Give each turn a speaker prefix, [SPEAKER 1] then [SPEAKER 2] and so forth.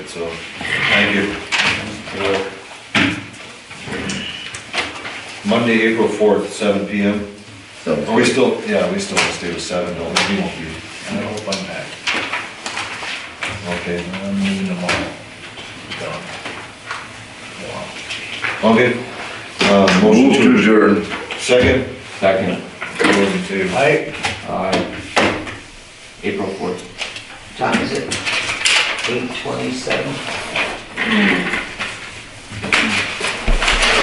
[SPEAKER 1] So, thank you. You're welcome. Monday, April fourth, seven P M. Are we still, yeah, we still want to stay with seven, don't we? We won't be.
[SPEAKER 2] I hope I'm back.
[SPEAKER 1] Okay,
[SPEAKER 2] I'm leaving tomorrow. Gone. Wow.
[SPEAKER 1] okay. Uh, motion
[SPEAKER 3] Move to
[SPEAKER 1] to,
[SPEAKER 3] adjourn.
[SPEAKER 1] second? Second. Those in favor?
[SPEAKER 2] I,
[SPEAKER 4] April fourth.
[SPEAKER 5] Time is it? Eight twenty-seven?